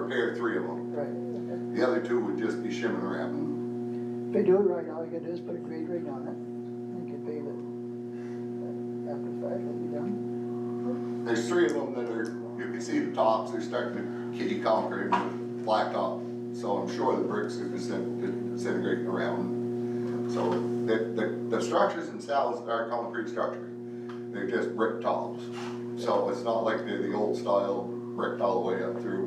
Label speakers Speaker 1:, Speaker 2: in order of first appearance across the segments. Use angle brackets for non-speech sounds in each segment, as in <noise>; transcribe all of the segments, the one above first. Speaker 1: repair three of them.
Speaker 2: Right.
Speaker 1: The other two would just be shim and wrapping.
Speaker 2: If they do it right, all you gotta do is put a grade ring on it, and you can pave it. After the fact, it'll be done.
Speaker 1: There's three of them that are, you can see the tops, they're starting to kitty concrete with blacktop. So I'm sure the bricks are disin- disintegrating around. So the, the, the structures themselves are concrete structure. They're just brick tops. So it's not like they're the old style bricked all the way up through.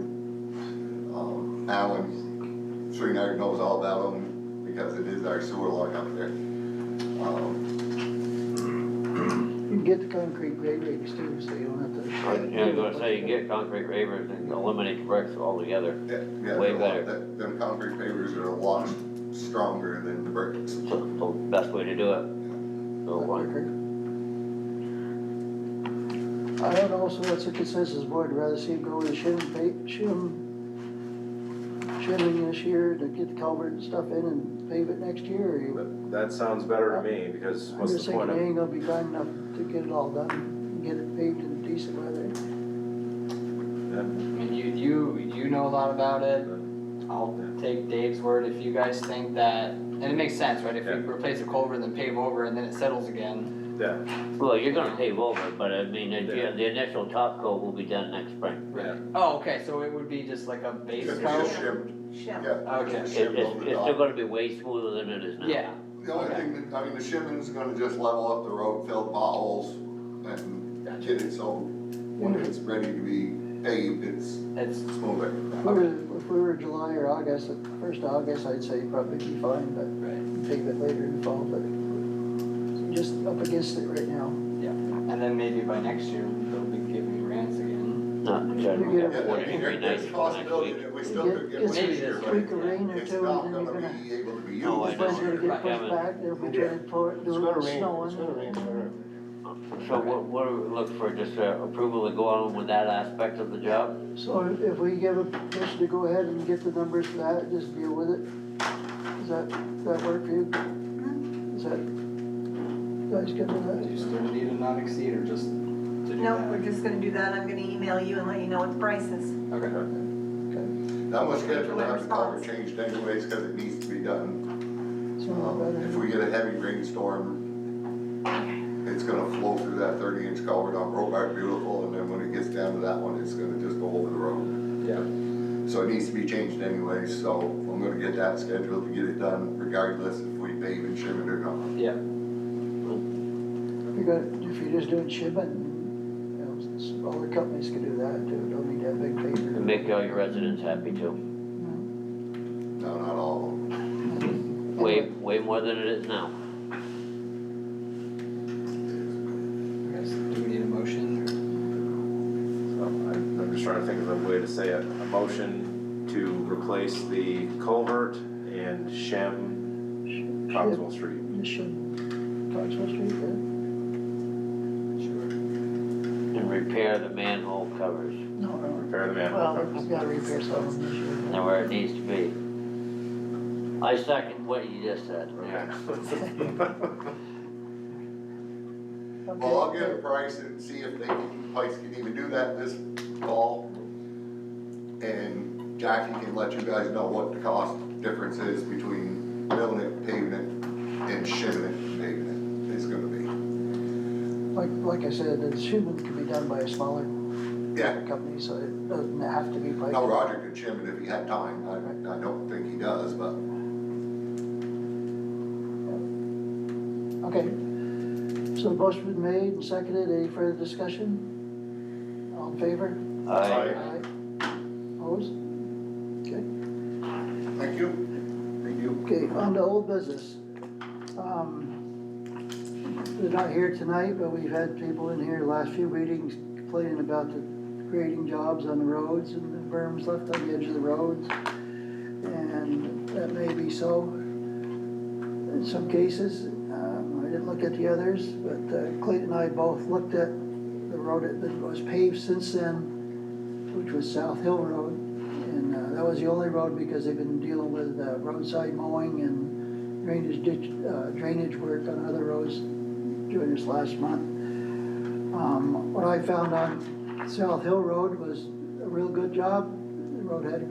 Speaker 1: Um, Alan Shreener knows all about them because it is our sewer line up there. Um,
Speaker 2: You can get the concrete grade rings too, so you don't have to.
Speaker 3: Yeah, I was gonna say, you get concrete ravers and eliminate the bricks altogether.
Speaker 1: Yeah, yeah,
Speaker 3: Way
Speaker 1: they're a lot-
Speaker 3: better.
Speaker 1: that- Them concrete pavers are a lot stronger than the bricks.
Speaker 3: It's the best way to do it. So, uh, like,
Speaker 2: I don't know, so what's the consensus, board, rather see it go with the shim, pa- shim, shimming this year to get the culvert and stuff in and pave it next year, or you?
Speaker 4: That that sounds better to me, because
Speaker 2: I'm
Speaker 4: what's
Speaker 2: just
Speaker 4: the
Speaker 2: thinking,
Speaker 4: point
Speaker 2: it
Speaker 4: of,
Speaker 2: ain't gonna be done enough to get it all done, and get it paved in decent weather.
Speaker 4: yeah,
Speaker 5: I mean, you, you, you know a lot about it. I'll take Dave's word if you guys think that, and it makes sense, right? If we
Speaker 4: Yeah.
Speaker 5: replace a culvert, then pave over and then it settles again.
Speaker 4: yeah,
Speaker 3: Well, you're gonna pave over, but I mean, the, the initial top coat will be done next spring.
Speaker 4: yeah,
Speaker 5: Oh, okay, so it would be just like a base
Speaker 1: Just
Speaker 5: coat?
Speaker 1: just shimmed, yeah.
Speaker 6: Shim.
Speaker 1: just
Speaker 5: Okay.
Speaker 1: the
Speaker 3: It's,
Speaker 1: shim
Speaker 3: it's,
Speaker 1: over the
Speaker 3: it's
Speaker 1: top.
Speaker 3: still gonna be way smoother than it is now.
Speaker 5: Yeah,
Speaker 1: The only
Speaker 5: okay.
Speaker 1: thing, that- I mean, the shimming's gonna just level up the road, fill the potholes and
Speaker 5: Gotcha.
Speaker 1: get it so when it's ready to be paved, it's
Speaker 5: it's,
Speaker 1: smoother.
Speaker 2: If we were, if we were July or August, first of August, I'd say probably be fine, but
Speaker 5: right,
Speaker 2: pave it later in the fall, but just up against it right now.
Speaker 5: yeah. And then maybe by next year, they'll be giving grants again.
Speaker 3: Not in
Speaker 2: You
Speaker 3: general.
Speaker 2: get
Speaker 1: Yeah,
Speaker 2: a-
Speaker 3: Forty
Speaker 1: there-
Speaker 3: degree nice
Speaker 1: There's a
Speaker 3: for next
Speaker 1: possibility
Speaker 3: week.
Speaker 1: that we still could get
Speaker 2: It's-
Speaker 1: one this year,
Speaker 5: it's
Speaker 1: but
Speaker 2: Week of rain or
Speaker 1: it's
Speaker 2: two,
Speaker 1: not
Speaker 2: and then you're
Speaker 1: gonna
Speaker 2: gonna,
Speaker 1: be able to be used.
Speaker 3: No, Oh, I
Speaker 2: it's gonna
Speaker 1: this
Speaker 3: know.
Speaker 1: year.
Speaker 2: get pushed back, they'll be trying to pour, it, do a little snow on it.
Speaker 3: So what, what do we look for, just uh, approval to go on with that aspect of the job?
Speaker 2: So if we give a permission to go ahead and get the numbers for that, just deal with it, does that, that work for you? Is that, you guys good with
Speaker 5: Do
Speaker 2: that?
Speaker 5: you still need a not exceed or just to do
Speaker 6: No,
Speaker 5: that?
Speaker 6: we're just gonna do that, I'm gonna email you and let you know what the price is.
Speaker 5: Okay,
Speaker 1: That was scheduled to have the color
Speaker 6: Response.
Speaker 1: changed anyways, cause it needs to be done.
Speaker 2: Sound
Speaker 1: Um,
Speaker 2: better?
Speaker 1: If we get a heavy rainstorm, it's gonna flow through that thirty inch culvert on Brobart Beautiful, and then when it gets down to that one, it's gonna just go over the road.
Speaker 4: yeah,
Speaker 1: So it needs to be changed anyway, so I'm gonna get that scheduled to get it done regardless if we pave and shim it or not.
Speaker 5: yeah.
Speaker 2: You got, if you're just doing shipping, you know, s- s- all the companies can do that too, don't need that big paper.
Speaker 3: And make all your residents happy too.
Speaker 1: No, not all of them.
Speaker 3: Way, way more than it is now.
Speaker 5: Okay, so Do we need a motion?
Speaker 4: so I'm, I'm just trying to think of a way to say it, a motion to replace the culvert and shim Cogswell Street.
Speaker 2: Just shim, Coxwell Street, yeah?
Speaker 5: Sure.
Speaker 3: And repair the manhole covers,
Speaker 2: No, no.
Speaker 4: Repair the manhole
Speaker 2: Well,
Speaker 4: covers.
Speaker 2: I've gotta repair some of them this year.
Speaker 3: and where it needs to be. I second what you just said,
Speaker 4: <laughs>
Speaker 3: Mayor.
Speaker 1: Well, I'll get a price and see if they, can- Pikes can even do that this fall. And Jackie can let you guys know what the cost difference is between milling it, paving it, and shimming it, and paving it, it's gonna be.
Speaker 2: Like, like I said, the shipment can be done by a smaller
Speaker 1: Yeah,
Speaker 2: company, so it doesn't have to be by.
Speaker 1: now Roger could shim it if he had time, I, I don't think he does, but
Speaker 2: Okay. So the motion's been made and seconded. Any further discussion? All in favor?
Speaker 3: I,
Speaker 2: Aye. Opposed? Okay.
Speaker 1: thank you. Thank you.
Speaker 2: Okay, on to old business. Um, They're not here tonight, but we've had people in here the last few meetings complaining about the grading jobs on the roads and the berms left on the edge of the roads. And that may be so in some cases. Um, I didn't look at the others, but uh, Clayton and I both looked at the road that was paved since then, which was South Hill Road. And uh, that was the only road because they've been dealing with uh, roadside mowing and drainage ditch, uh, drainage work on other roads during this last month. Um, What I found on South Hill Road was a real good job. The road had